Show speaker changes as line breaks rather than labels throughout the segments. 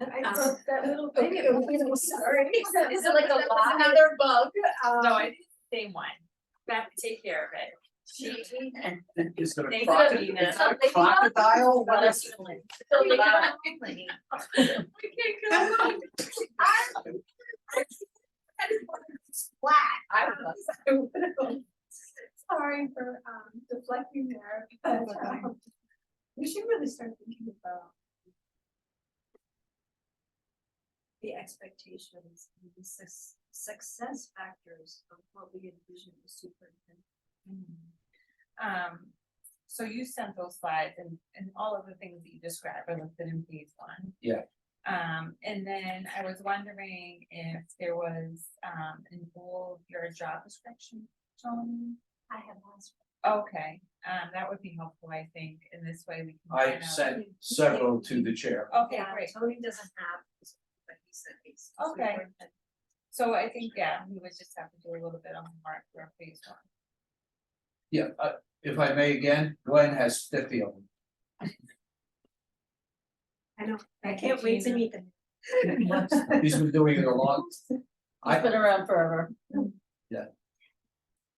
I thought that little thing.
Okay.
it was- Sorry.
Is it like a
That was
lot?
Another bug.
No,
um,
I think it's the same one. We have to take care of it. She.
Is it
They
a
could
crocodile?
be,
Is
man.
it a crocodile? What is it?
So they don't have to clean.
I don't know. I- I just wanted to splat.
I would love
Sorry for um deflecting there, but um, we should really start thinking about. The expectations and the success success factors of what we envision the superintendent.
Um, so you sent those slides and, and all of the things that you described are listed in phase one.
Yeah.
Um, and then I was wondering if there was, um, in bold your job description, Tony?
I have asked.
Okay, um, that would be helpful, I think, in this way we can.
I
find out-
sent several to the chair.
Okay,
Yeah,
great.
Tony doesn't have, this, but he said he's.
Okay. So I think, yeah, we would just have to do a little bit of homework for phase one.
Yeah, uh, if I may again, Glenn has fifty of them.
I can't wait to meet them.
He's been doing it a long. I,
been around forever.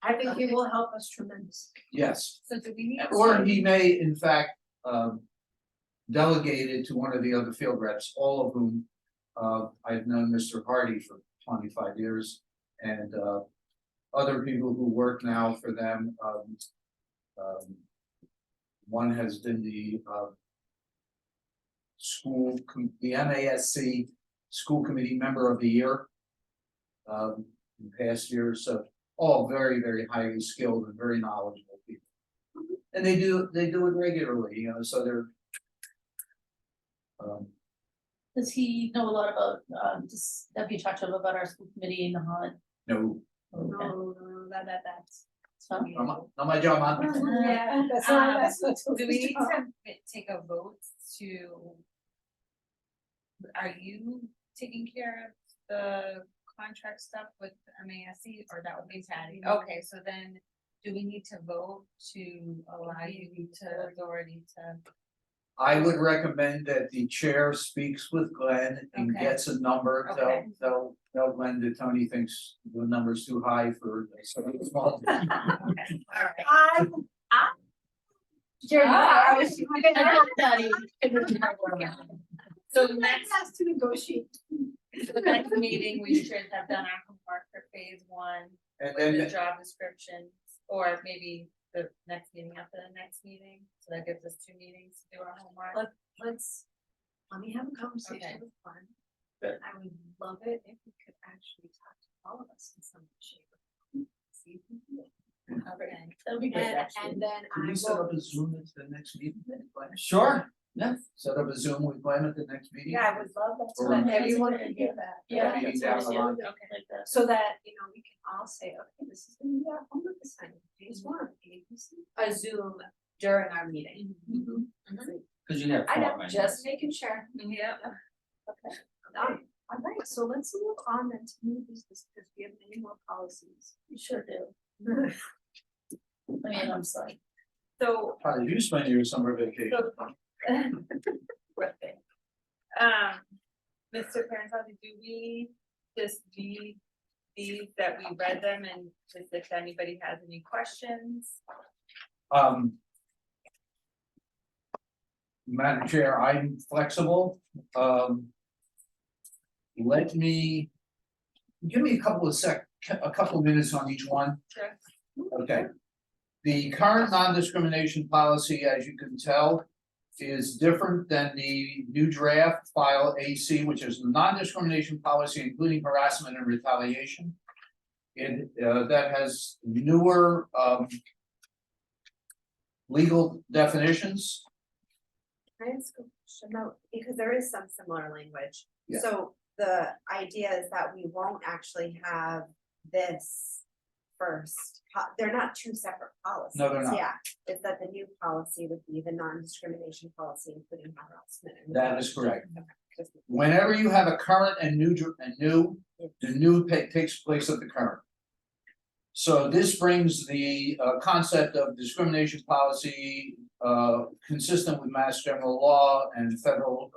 I think he will help us tremendously.
yes,
So do we need?
or he may in fact, um. Delegate it to one of the other field reps, all of whom, uh, I've known Mr. Hardy for twenty-five years. And, uh, other people who work now for them, um. um, One has been the, uh. School, com- the MASC School Committee Member of the Year. Um, in past years, so all very, very highly skilled and very knowledgeable people. And they do, they do it regularly, you know, so they're. Um,
Does he know a lot about, um, just, have you talked to him about our school committee in the Holland?
no,
Okay.
No, no, that, that, that's.
So-
not my, not my job, I'm-
Yeah, that's
Um,
not, Uh-huh. that's not.
Do we need to mi- take a vote to? Are you taking care of the contract stuff with MASC or that would be Patty? Okay, so then do we need to vote to allow you to authority to?
I would recommend that the chair speaks with Glenn and
Okay.
gets a number, they'll,
Okay.
they'll, they'll Glenn that Tony thinks the number's too high for. All
Okay, all right.
I,
Jerry,
Ah,
I was- I know that he-
So
I
next,
have to negotiate.
the next meeting, we should have done our homework for phase one,
And
the
then,
job description, or maybe the next meeting after the next meeting. So that gives us two meetings to do our homework.
Let's, let me have a conversation
Okay.
with Glenn.
Yeah.
I would love it if we could actually talk to all of us in some shape. or form, See if we can do it.
Okay.
That'd be great,
And,
actually.
and then
can
I
we set
will,
up a Zoom at the next meeting? Sure, yeah, set up a Zoom with Glenn at the next meeting.
yeah, I would love that, so
Or-
that everyone can hear that.
Yeah.
Maybe
that's
down
what
the
I
line.
do,
Okay.
like that.
So that, you know, we can all say, okay, this is gonna be our homework assignment, phase one, A, B, C.
A Zoom during our meeting.
Cause you have.
I
four
know,
right now.
just making sure.
Yep.
Um, all right, so let's move on then to new business, because we have many more policies.
You sure do.
Hmm.
I mean, I'm sorry.
So,
Probably you spend your summer vacation.
so. Worth it. Um, Mr. Parentaldi, do we just read these that we read them and just if anybody has any questions?
Um. Madam Chair, I'm flexible, um. Let me. Give me a couple of sec, a couple of minutes on each one.
Sure.
Okay. The current non-discrimination policy, as you can tell, is different than the new draft file AC, which is non-discrimination policy, including harassment and retaliation. It, uh, that has newer, um, legal definitions.
Can I ask a question though, because there is some similar language.
Yeah.
So the idea is that we won't actually have this first, po- they're not two separate policies.
No, they're not.
Yeah, it's that the new policy would be the non-discrimination policy, including harassment. and-
That is correct.
Okay, just-
Whenever you have a current and new, dr- and new, the new pa- takes place of the current. So this brings the uh concept of discrimination policy uh consistent with mass general law and federal